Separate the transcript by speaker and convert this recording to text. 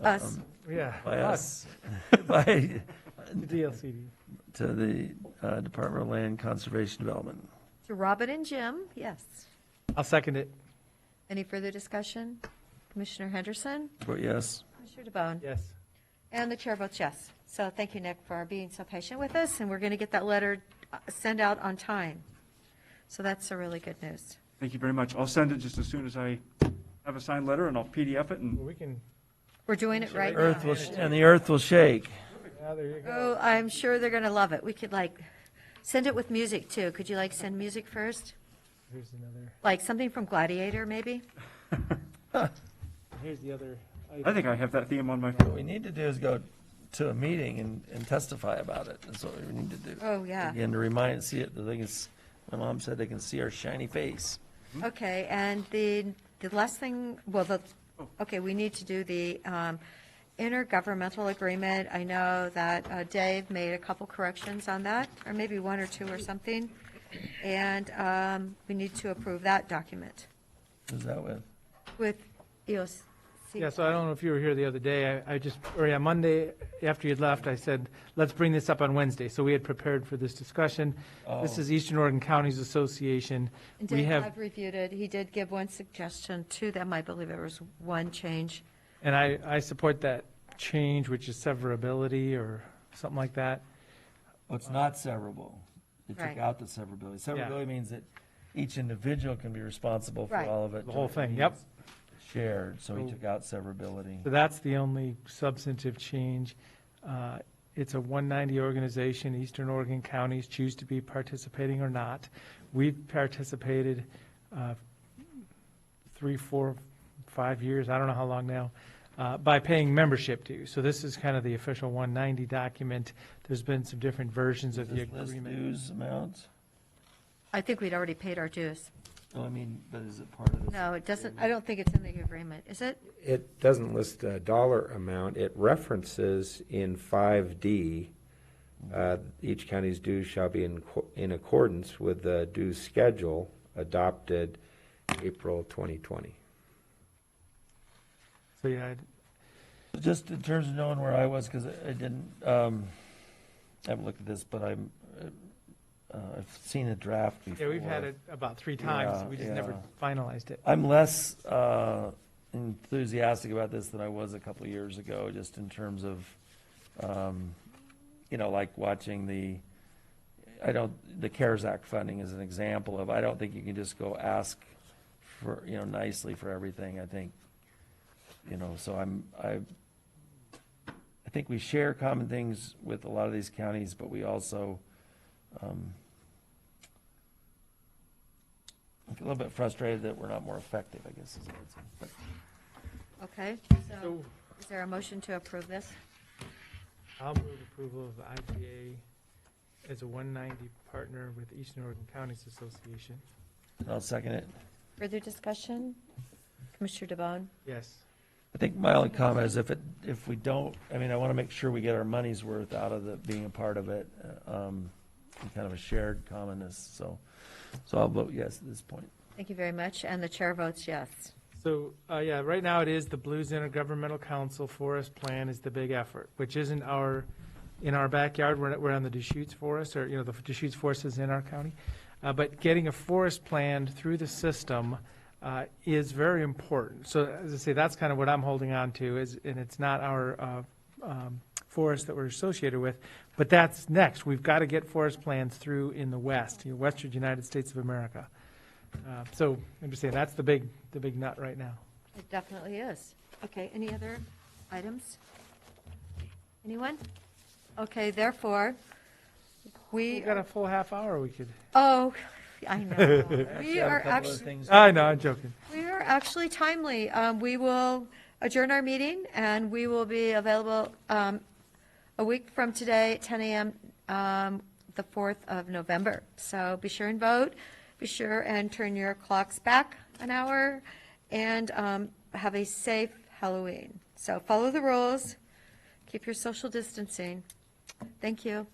Speaker 1: Us.
Speaker 2: Yeah.
Speaker 3: by Um, us, by,
Speaker 2: The DLCD.
Speaker 3: to the uh, Department of Land Conservation Development.
Speaker 1: To Robin and Jim, yes.
Speaker 2: I'll second it.
Speaker 1: Any further discussion? Commissioner Henderson?
Speaker 3: Vote yes.
Speaker 1: Commissioner DeBonne?
Speaker 2: Yes.
Speaker 1: And the chair votes yes. So thank you, Nick, for being so patient with us, and we're going to get that letter uh, sent out on time. So that's the really good news.
Speaker 4: Thank you very much. I'll send it just as soon as I have a signed letter, and I'll PDF it, and
Speaker 2: Well, we can,
Speaker 1: We're doing it right
Speaker 3: Earth
Speaker 1: now.
Speaker 3: will, sh- and the earth will shake.
Speaker 2: yeah, ah, there you go.
Speaker 1: Oh, I'm sure they're going to love it. We could like, send it with music too. Could you like send music first?
Speaker 2: Here's another,
Speaker 1: Like something from Gladiator, maybe?
Speaker 2: here's the other.
Speaker 4: I think I have that theme on my phone.
Speaker 3: What we need to do is go to a meeting and, and testify about it. That's what we need to do.
Speaker 1: Oh, yeah.
Speaker 3: Again, to remind, see it, the thing is, my mom said they can see our shiny face.
Speaker 1: Okay, and the, the last thing, well, the, okay, we need to do the um, intergovernmental agreement. I know that uh, Dave made a couple corrections on that, or maybe one or two or something. And um, we need to approve that document
Speaker 3: Is that what?
Speaker 1: with E EOC.
Speaker 2: Yeah, so I don't know if you were here the other day. I, I just, or yeah, Monday, after you'd left, I said, let's bring this up on Wednesday. So we had prepared for this discussion. This
Speaker 3: Oh.
Speaker 2: is Eastern Oregon Counties Association.
Speaker 1: And
Speaker 2: We
Speaker 1: Dave,
Speaker 2: have,
Speaker 1: I've reviewed it. He did give one suggestion to them. I believe there was one change.
Speaker 2: and I, I support that change, which is severability or something like that.
Speaker 3: Well, it's not severable. They
Speaker 1: Right.
Speaker 3: took out the severability. Severability means that each individual can be responsible for
Speaker 1: Right.
Speaker 3: all of it.
Speaker 2: The whole thing, yep.
Speaker 3: Shared, so we
Speaker 2: So-
Speaker 3: took out severability.
Speaker 2: So that's the only substantive change. Uh, It's a 190 organization, Eastern Oregon counties choose to be participating or not. We've participated uh, three, four, five years, I don't know how long now, uh, by paying membership dues. So this is kind of the official 190 document. There's been some different versions of
Speaker 3: Does
Speaker 2: the
Speaker 3: this list
Speaker 2: agreement.
Speaker 3: dues amounts?
Speaker 1: I think we'd already paid our dues.
Speaker 3: No, I mean, but is it part of this?
Speaker 1: No, it doesn't, I don't think it's in the agreement, is it?
Speaker 5: It doesn't list a dollar amount. It references in 5D, uh, each county's dues shall be in co- in accordance with the due schedule adopted April 2020.
Speaker 2: So yeah,
Speaker 3: Just in terms of knowing where I was, because I didn't, um, I haven't looked at this, but I'm, uh, I've seen a draft
Speaker 2: yeah,
Speaker 3: before.
Speaker 2: we've had it about three times,
Speaker 3: Yeah,
Speaker 2: we just never
Speaker 3: yeah.
Speaker 2: finalized it.
Speaker 3: I'm less uh, enthusiastic about this than I was a couple of years ago, just in terms of, um, you know, like watching the, I don't, the CARES Act funding is an example of, I don't think you can just go ask for, you know, nicely for everything, I think, you know, so I'm, I, I think we share common things with a lot of these counties, but we also, um, I'm a little bit frustrated that we're not more effective, I guess. is what it's- but-
Speaker 1: Okay, so
Speaker 2: So
Speaker 1: is there a motion to approve this?
Speaker 2: I'll move approval of the IPA as a 190 partner with Eastern Oregon Counties Association.
Speaker 3: and I'll second it.
Speaker 1: Further discussion? Commissioner DeBonne?
Speaker 2: Yes.
Speaker 3: I think my only comment is if it, if we don't, I mean, I want to make sure we get our money's worth out of the, being a part of it. uh, um, and Kind of a shared commonness, so, so I'll vote yes at this point.
Speaker 1: Thank you very much, and the chair votes yes.
Speaker 2: So, uh, yeah, right now it is the Blues Intergovernmental Council Forest Plan is the big effort, which isn't our, in our backyard, we're, we're on the Deschutes Forest, or, you know, the Deschutes Forest is in our county. Uh, but getting a forest plan through the system, uh, is very important. So as I say, that's kind of what I'm holding on to is, and it's not our, uh, um, forests that we're associated with, but that's next. We've got to get forest plans through in the west, you know, western United States of America. Uh, So I'm just saying, that's the big, the big nut right now.
Speaker 1: It definitely is. Okay, any other items? Anyone? Okay, therefore,
Speaker 2: We
Speaker 1: we,
Speaker 2: got a full half hour we could.
Speaker 1: oh, I know.
Speaker 3: Actually,
Speaker 1: We
Speaker 3: I have a
Speaker 1: are
Speaker 3: couple other
Speaker 1: actually,
Speaker 3: things.
Speaker 2: I know, I'm joking.
Speaker 1: we are actually timely. Um, We will adjourn our meeting, and we will be available um, a week from today, at 10 a.m., um, the 4th of November. So be sure and vote, be sure and turn your clocks back an hour, and um, have a safe Halloween. So follow the rules, keep your social distancing. Thank you.